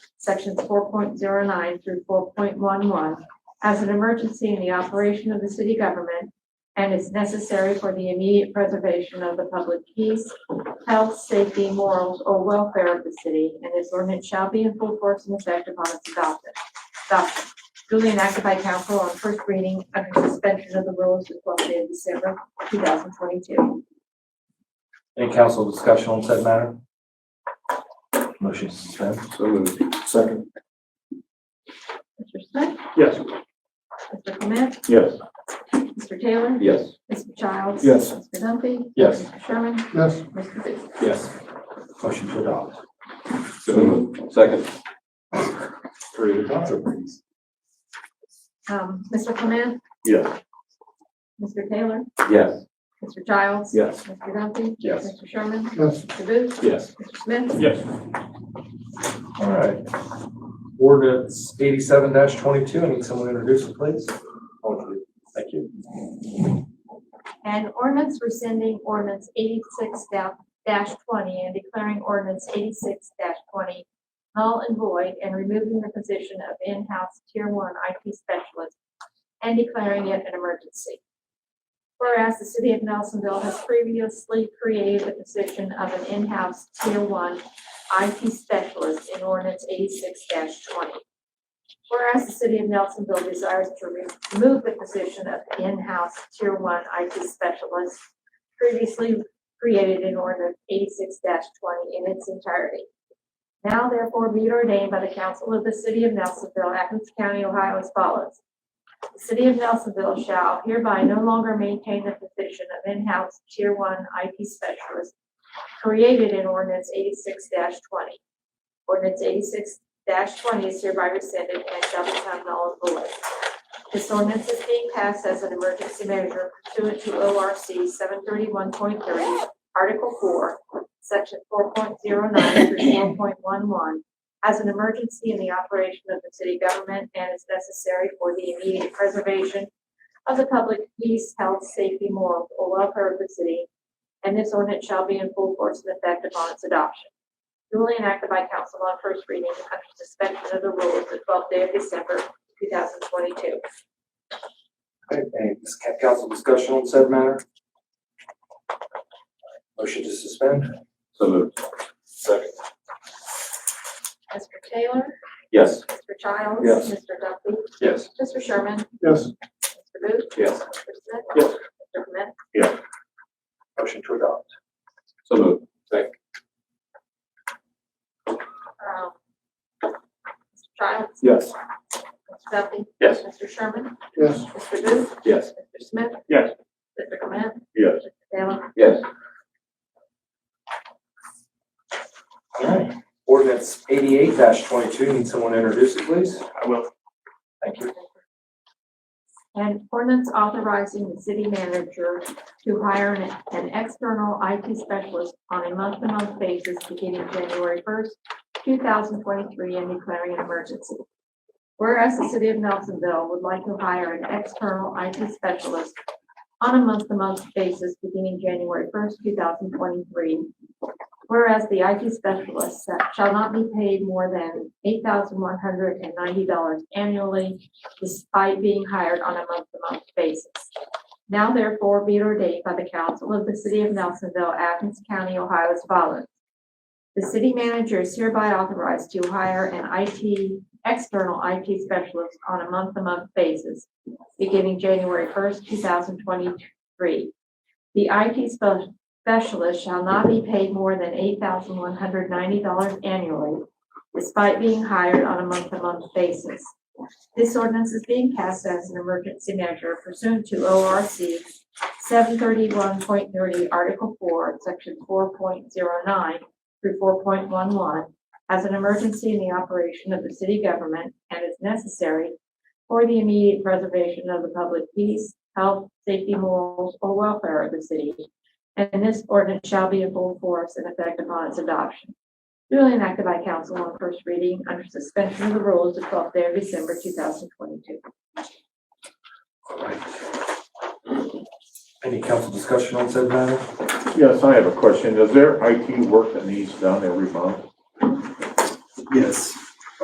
sections four point zero nine through four point one one as an emergency in the operation of the city government and is necessary for the immediate preservation of the public peace, health, safety, morals, or welfare of the city, and this ordinance shall be in full force and effect upon its adoption. Adoption duly enacted by council on first reading under suspension of the rules the twelfth day of December, two thousand twenty-two. Any council discussion on said matter? Motion to suspend? So moved. Second. Mr. Smith? Yes. Mr. Clement? Yes. Mr. Taylor? Yes. Mr. Childs? Yes. Mr. Dumpy? Yes. Mr. Sherman? Yes. Mr. Booth? Yes. Motion to adopt. So moved. Second. Three please. Um, Mr. Clement? Yes. Mr. Taylor? Yes. Mr. Childs? Yes. Mr. Dumpy? Yes. Mr. Sherman? Yes. Mr. Booth? Yes. Mr. Smith? Yes. All right. Ordinance eighty-seven twenty-two, I need someone to introduce it, please. Thank you. And ordinance rescinding ordinance eighty-six twenty and declaring ordinance eighty-six twenty null and void and removing the position of in-house tier one IT specialist and declaring it an emergency. Whereas the city of Nelsonville has previously created the position of an in-house tier one IT specialist in ordinance eighty-six twenty. Whereas the city of Nelsonville desires to remove the position of in-house tier one IT specialist previously created in ordinance eighty-six twenty in its entirety. Now therefore be it ordained by the council of the city of Nelsonville, Athens County, Ohio as follows. The city of Nelsonville shall hereby no longer maintain the position of in-house tier one IT specialist created in ordinance eighty-six twenty. Ordinance eighty-six twenty is hereby rescinded and shall become null and void. This ordinance is being passed as an emergency measure pursuant to O R C seven thirty-one point three, Article four, Section four point zero nine through four point one one, as an emergency in the operation of the city government and is necessary for the immediate preservation of the public peace, health, safety, morals, or welfare of the city, and this ordinance shall be in full force and effect upon its adoption duly enacted by council on first reading under suspension of the rules the twelfth day of December, two thousand twenty-two. Okay, any dis- council discussion on said matter? Motion to suspend? So moved. Second. Mr. Taylor? Yes. Mr. Childs? Yes. Mr. Duffy? Yes. Mr. Sherman? Yes. Mr. Booth? Mr. Yes. Smith? Yes. Mr. Clement? Motion to adopt. So moved. Um, Mr. Childs? Yes. Mr. Duffy? Yes. Mr. Sherman? Yes. Mr. Booth? Yes. Mr. Smith? Yes. Mr. Clement? Yes. Mr. Taylor? Yes. All right. Ordinance eighty-eight twenty-two, need someone to introduce it, please? I will. Thank you. And ordinance authorizing the city manager to hire an, an external IT specialist on a month-to-month basis beginning January first, two thousand twenty-three, and declaring an emergency. Whereas the city of Nelsonville would like to hire an external IT specialist on a month-to-month basis beginning January first, two thousand twenty-three. Whereas the IT specialist shall not be paid more than eight thousand one hundred and ninety dollars annually despite being hired on a month-to-month basis. Now therefore be it ordained by the council of the city of Nelsonville, Athens County, Ohio as follows. The city manager is hereby authorized to hire an IT, external IT specialist on a month-to-month basis beginning January first, two thousand twenty-three. The IT spe- specialist shall not be paid more than eight thousand one hundred ninety dollars annually despite being hired on a month-to-month basis. This ordinance is being passed as an emergency measure pursuant to O R C seven thirty-one point thirty, Article four, Section four point zero nine through four point one one, as an emergency in the operation of the city government and is necessary for the immediate preservation of the public peace, health, safety, morals, or welfare of the city. And this ordinance shall be in full force and effect upon its adoption duly enacted by council on first reading under suspension of the rules the twelfth day of December, two thousand twenty-two. All right. Any council discussion on said matter? Yes, I have a question. Is there IT work that needs done every month? Yes,